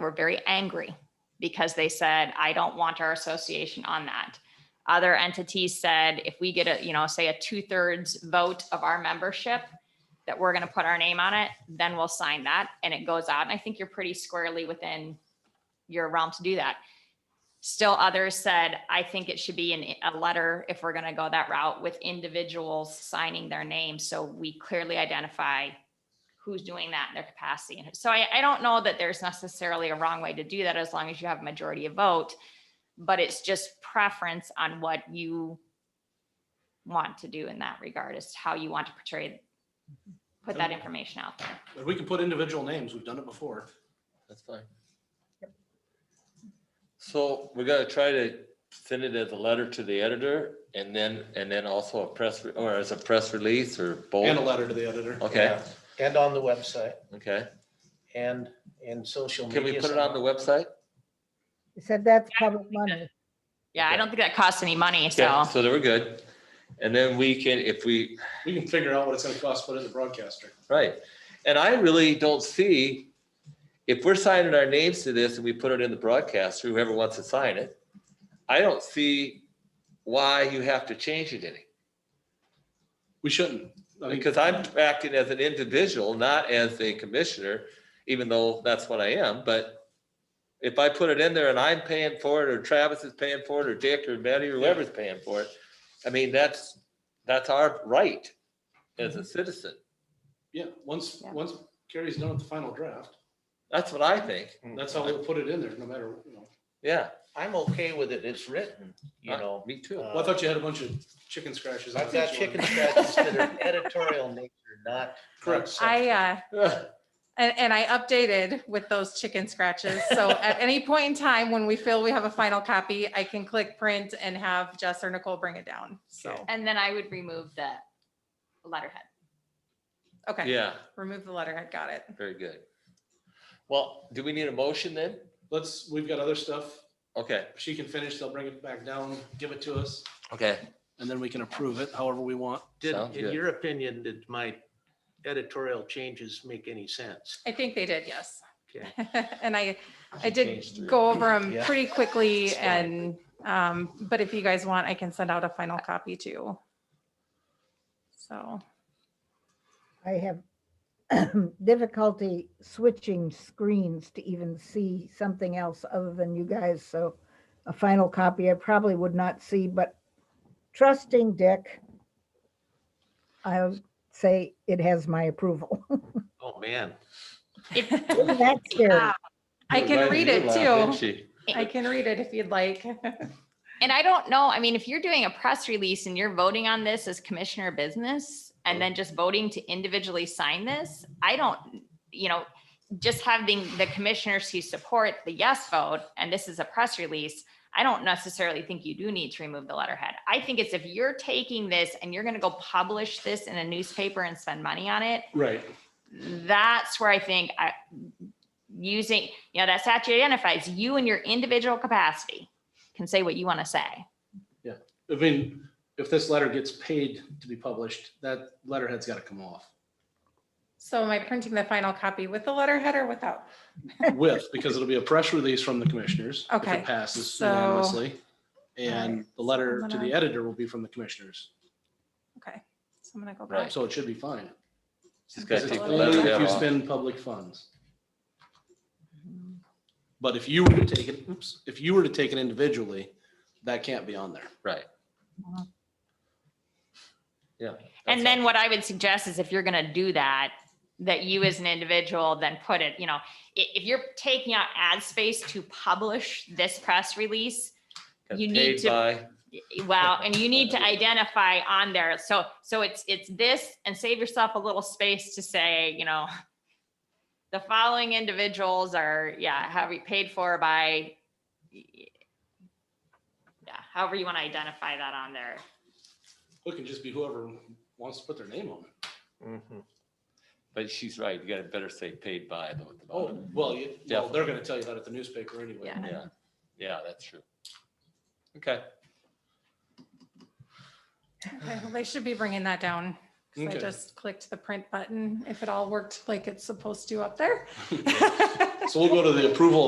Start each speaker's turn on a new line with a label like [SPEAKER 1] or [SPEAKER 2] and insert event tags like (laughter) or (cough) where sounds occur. [SPEAKER 1] were very angry because they said, I don't want our association on that. Other entities said, if we get a, you know, say a two thirds vote of our membership, that we're going to put our name on it, then we'll sign that and it goes out. And I think you're pretty squarely within your realm to do that. Still others said, I think it should be in a letter if we're going to go that route with individuals signing their name. So we clearly identify who's doing that in their capacity. And so I, I don't know that there's necessarily a wrong way to do that as long as you have a majority of vote. But it's just preference on what you want to do in that regard as to how you want to portray, put that information out there.
[SPEAKER 2] But we can put individual names. We've done it before.
[SPEAKER 3] That's fine. So we gotta try to send it as a letter to the editor and then, and then also a press, re- or as a press release or
[SPEAKER 2] And a
[SPEAKER 3] both.
[SPEAKER 2] letter to the editor.
[SPEAKER 3] Okay,
[SPEAKER 4] Yeah. And on the website
[SPEAKER 3] okay.
[SPEAKER 4] and in social media.
[SPEAKER 3] Can we put it on the website?
[SPEAKER 5] He said that's
[SPEAKER 1] Yeah, I
[SPEAKER 5] public money.
[SPEAKER 1] Yeah, I don't think that costs any money,
[SPEAKER 3] Okay,
[SPEAKER 1] so.
[SPEAKER 3] so then we're good. And then we can, if we,
[SPEAKER 2] We can figure out what it's gonna cost, put it in the broadcaster.
[SPEAKER 3] Right. And I really don't see, if we're signing our names to this and we put it in the broadcast, whoever wants to sign it, I don't see why you have to change it any.
[SPEAKER 2] We shouldn't. I mean,
[SPEAKER 3] Because I'm acting as an individual, not as a commissioner, even though that's what I am, but if I put it in there and I'm paying for it, or Travis is paying for it, or Dick or Betty, or whoever's paying for it, I mean, that's, that's our right as
[SPEAKER 2] Mm-hmm.
[SPEAKER 3] a citizen.
[SPEAKER 2] yeah, once,
[SPEAKER 1] Yeah.
[SPEAKER 2] once Carrie's done with the final draft,
[SPEAKER 3] That's what I think.
[SPEAKER 2] that's how we'll put it in there, no matter, you know.
[SPEAKER 3] Yeah.
[SPEAKER 4] I'm okay with it. It's written, you
[SPEAKER 3] I-
[SPEAKER 4] know.
[SPEAKER 3] Me too.
[SPEAKER 2] Well, I thought you had a bunch of chicken scratches. on
[SPEAKER 4] I've got
[SPEAKER 2] each one.
[SPEAKER 4] chicken scratches that are editorial nature, not.
[SPEAKER 2] Correct.
[SPEAKER 6] I, uh,
[SPEAKER 3] Yeah.
[SPEAKER 6] and, and I updated with those chicken scratches.
[SPEAKER 4] (laughs)
[SPEAKER 6] So at any point in time when we feel we have a final copy, I can click print and have Jess or Nicole bring it down. So,
[SPEAKER 1] And then I would remove the letterhead.
[SPEAKER 6] okay,
[SPEAKER 3] Yeah,
[SPEAKER 6] remove the letterhead, got it.
[SPEAKER 3] very good. Well, do we need a motion then?
[SPEAKER 2] (laughs) Let's, we've got other stuff.
[SPEAKER 3] Okay,
[SPEAKER 2] If She can finish, they'll bring it back down, give it to us,
[SPEAKER 3] okay.
[SPEAKER 2] and then we can approve it however we want.
[SPEAKER 7] Did,
[SPEAKER 3] Sounds
[SPEAKER 7] in
[SPEAKER 3] good.
[SPEAKER 7] your opinion, did my editorial changes make any sense?
[SPEAKER 6] I think they did, yes.
[SPEAKER 7] Okay.
[SPEAKER 6] (laughs) And I, I
[SPEAKER 4] changed three.
[SPEAKER 6] did go over them
[SPEAKER 4] Yeah.
[SPEAKER 6] pretty quickly
[SPEAKER 4] Sorry.
[SPEAKER 6] and, um, but if you guys want, I can send out a final copy too. So,
[SPEAKER 5] I have (clears throat) difficulty switching screens to even see something else other than you guys, so a final copy I probably would not see, but trusting Dick, I would say it has my approval. (laughs)
[SPEAKER 7] Oh, man.
[SPEAKER 5] That's scary.
[SPEAKER 6] I can read it too.
[SPEAKER 3] too.
[SPEAKER 6] I can read it if you'd like. (laughs)
[SPEAKER 1] And I don't know, I mean, if you're doing a press release and you're voting on this as commissioner business and then just voting to individually sign this, I don't, you know, just having the commissioners who support the yes vote, and this is a press release, I don't necessarily think you do need to remove the letterhead. I think it's if you're taking this and you're gonna go publish this in a newspaper and spend money on it,
[SPEAKER 2] Right.
[SPEAKER 1] that's where I think I, using, you know, that statute identifies you in your individual capacity can say what you want to say.
[SPEAKER 2] I mean, if this letter gets paid to be published, that letterhead's gotta come off
[SPEAKER 6] So am I printing the final copy with the letterhead or without?
[SPEAKER 2] with, because it'll be a press release from the commissioners. if
[SPEAKER 6] Okay,
[SPEAKER 2] It passes
[SPEAKER 6] so-
[SPEAKER 2] unanimously. And the letter
[SPEAKER 6] I'm
[SPEAKER 2] to the
[SPEAKER 6] gonna-
[SPEAKER 2] editor will be from the commissioners.
[SPEAKER 6] Okay, so I'm gonna go
[SPEAKER 3] Right.
[SPEAKER 6] back.
[SPEAKER 2] So it should be fine.
[SPEAKER 3] Just gotta
[SPEAKER 2] Because
[SPEAKER 3] take
[SPEAKER 2] it's
[SPEAKER 3] the
[SPEAKER 2] only if
[SPEAKER 3] letterhead
[SPEAKER 2] you
[SPEAKER 3] off.
[SPEAKER 2] spend public funds.
[SPEAKER 6] Mm-hmm.
[SPEAKER 2] But if you were to take it, oops, if you were to take it individually, that can't be on there.
[SPEAKER 3] Right. Yeah.
[SPEAKER 1] Uh-huh. And
[SPEAKER 3] that's
[SPEAKER 1] then what I would suggest is if you're going to do that, that you as an individual then put it, you know, i- if, you're taking out ad space to publish this press release,
[SPEAKER 3] all.
[SPEAKER 1] you
[SPEAKER 3] Got
[SPEAKER 1] need
[SPEAKER 3] paid
[SPEAKER 1] to-
[SPEAKER 3] by-
[SPEAKER 1] well, and you need to identify on there. So, so it's, it's this and save yourself a little space to say, you know, (laughs) the following individuals are, yeah, have we paid for by, yeah, however you want to identify that on there.
[SPEAKER 2] It can just be whoever wants to put their name on it.
[SPEAKER 4] Mhm.
[SPEAKER 3] But she's right, you gotta better say paid by though. at the
[SPEAKER 2] Oh,
[SPEAKER 3] bottom.
[SPEAKER 2] well, you- well, they're gonna tell you that at the newspaper anyway.
[SPEAKER 1] Yeah.
[SPEAKER 3] Yeah, yeah, that's true. Okay,
[SPEAKER 6] Okay, well, They should be bringing that down. 'cause I
[SPEAKER 2] Okay.
[SPEAKER 6] just clicked the print button, if it all worked like it's supposed to up there.
[SPEAKER 2] So we'll go to the approval of